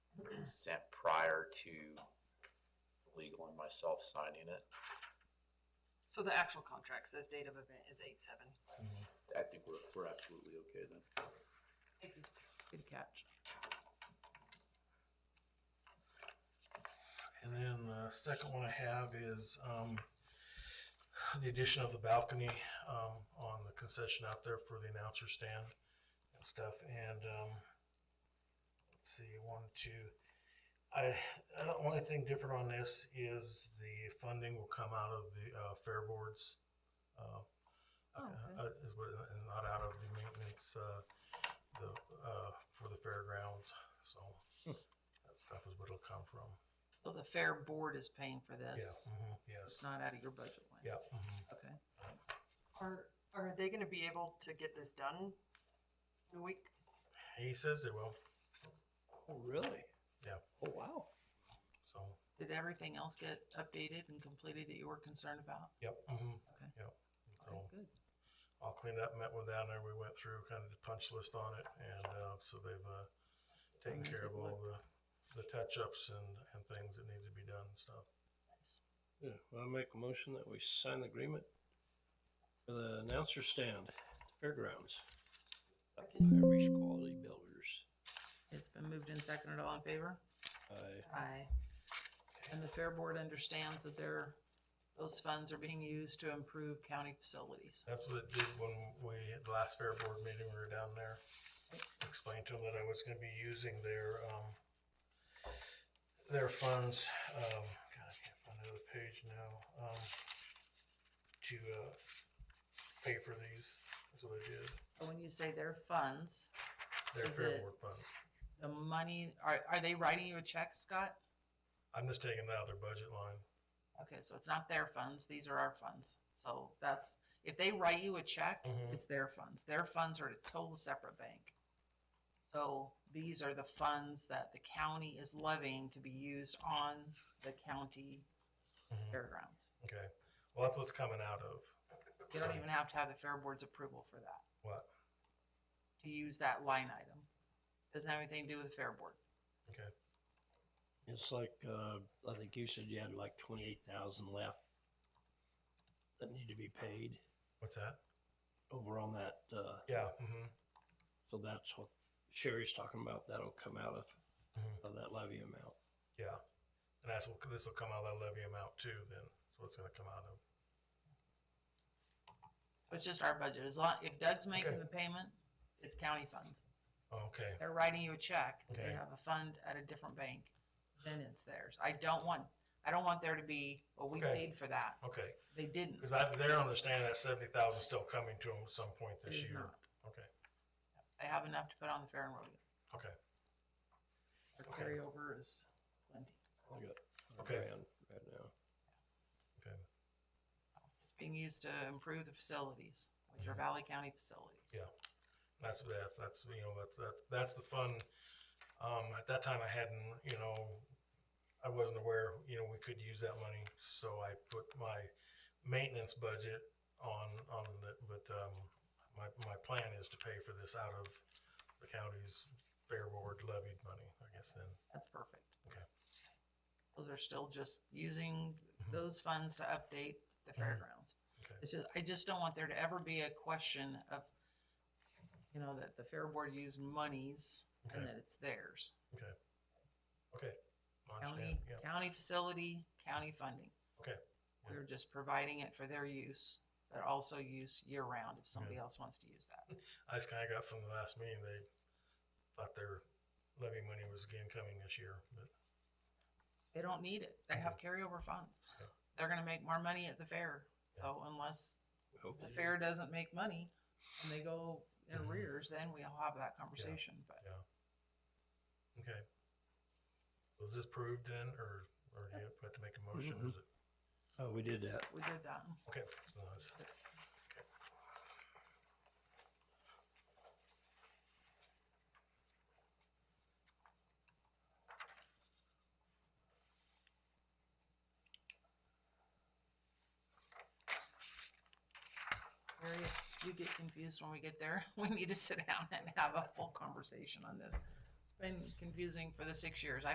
sent prior to legal and myself signing it. So the actual contract says date of event is eight seven. I think we're, we're absolutely okay then. Good catch. And then the second one I have is, um, the addition of the balcony, um, on the concession out there for the announcer stand and stuff, and, um, let's see, one, two. I, I don't, only thing different on this is the funding will come out of the, uh, fair boards. uh, Oh, okay. uh, is what- and not out of the maintenance, uh, the, uh, for the fairgrounds, so Hmm. that stuff is what it'll come from. So the fair board is paying for Yeah, this. mhm, It's yes, not out of your budget line. yeah. mhm. Okay. Are, are they gonna be able to get this done in a week? He says they will, Oh, really? yeah, Oh, wow. so, Did everything else get updated and completed that you were concerned about? yep, mhm, Okay. yep. Okay, So good. I'll clean up, met with down there, we went through kind of the punch list on it, and, uh, so they've, uh, taken Let me care take of a all the, the touch-ups and, and things that need to be done and stuff. Nice. Yeah, well, I make a motion that we sign the agreement for the announcer stand at the fairgrounds. Irish Quality Builders. It's been moved and seconded. All in favor? I Aye. And the Fair Board understands that their, those funds are being used to improve county facilities. That's what it did when we, had the last fair board meeting, we were down there. Explained to them that I was gonna be using their, um, their funds, um, God, I can't find another page now, um, to, uh, pay for these, that's what I did. So when you say their funds, Their Is fair it- board funds. the money, are, are they writing you a check, Scott? I'm just taking it out of their budget line. Okay, so it's not their funds, these are our funds. So that's, if they write you a check, Mhm. it's their funds. Their funds are a total separate bank. So these are the funds that the county is levying to be used on the county fairgrounds. Mm-hmm. Okay, well, that's what's coming out of, You don't even have to have the Fair Board's approval for that, what, to use that line item. Doesn't have anything to do with the Fair Board. okay, It's like, uh, I think you said you had like twenty-eight thousand left that need to be paid what's that? over on that, uh, Yeah, hmm so that's what Sherry's talking about. That'll come out of, Mhm. of that levy amount. yeah, and that's, what- this will come out of that levy amount too, then, so it's gonna come out of. It's just our budget. As long, if Doug's making Okay. the payment, it's county funds. Okay, They're writing you a check. They Okay. have a fund at a different bank, then it's theirs. I don't want, I don't want there to be, well, we Okay. paid for that. okay, They didn't. because I, they're understanding that seventy thousand still coming to them at some point It this is year. not. Okay, They have enough to put on the fair and rodeo. okay, Their carryover is plenty. I got a Okay. grand right now. okay, It's being used to improve the facilities, which are Valley County facilities. Mm-hmm. yeah, that's, that, that's, you know, that's, that, that's the fun. Um, at that time I hadn't, you know, I wasn't aware, you know, we could use that money, so I put my maintenance budget on, on the, but, um, my, my plan is to pay for this out of the county's fair board levied money, I guess then, That's perfect. okay, Those are still just using Mm-hmm. those funds to update the fairgrounds. okay. It's just, I just don't want there to ever be a question of, you know, that the fair board used monies and Okay. that it's theirs. Okay. Okay. I County, understand. Yeah. county facility, county funding. Okay. We We're just providing it for their use, but also use year round if somebody else wants to use that. I just kind of got from the last meeting, they thought their levy money was again coming this year, but They don't need it. They have carryover funds. They're gonna make more money at the fair. So unless the fair doesn't make money and they go in Mm-hmm. arrears, then we'll have that conversation, but yeah. Okay. Was this proved then, or, or do you have to make a motion? or Is it? Oh, we did that. we did that. Okay. So it's- Mary, if you get confused when we get there, we need to sit down and have a full conversation on this. It's been confusing for the six years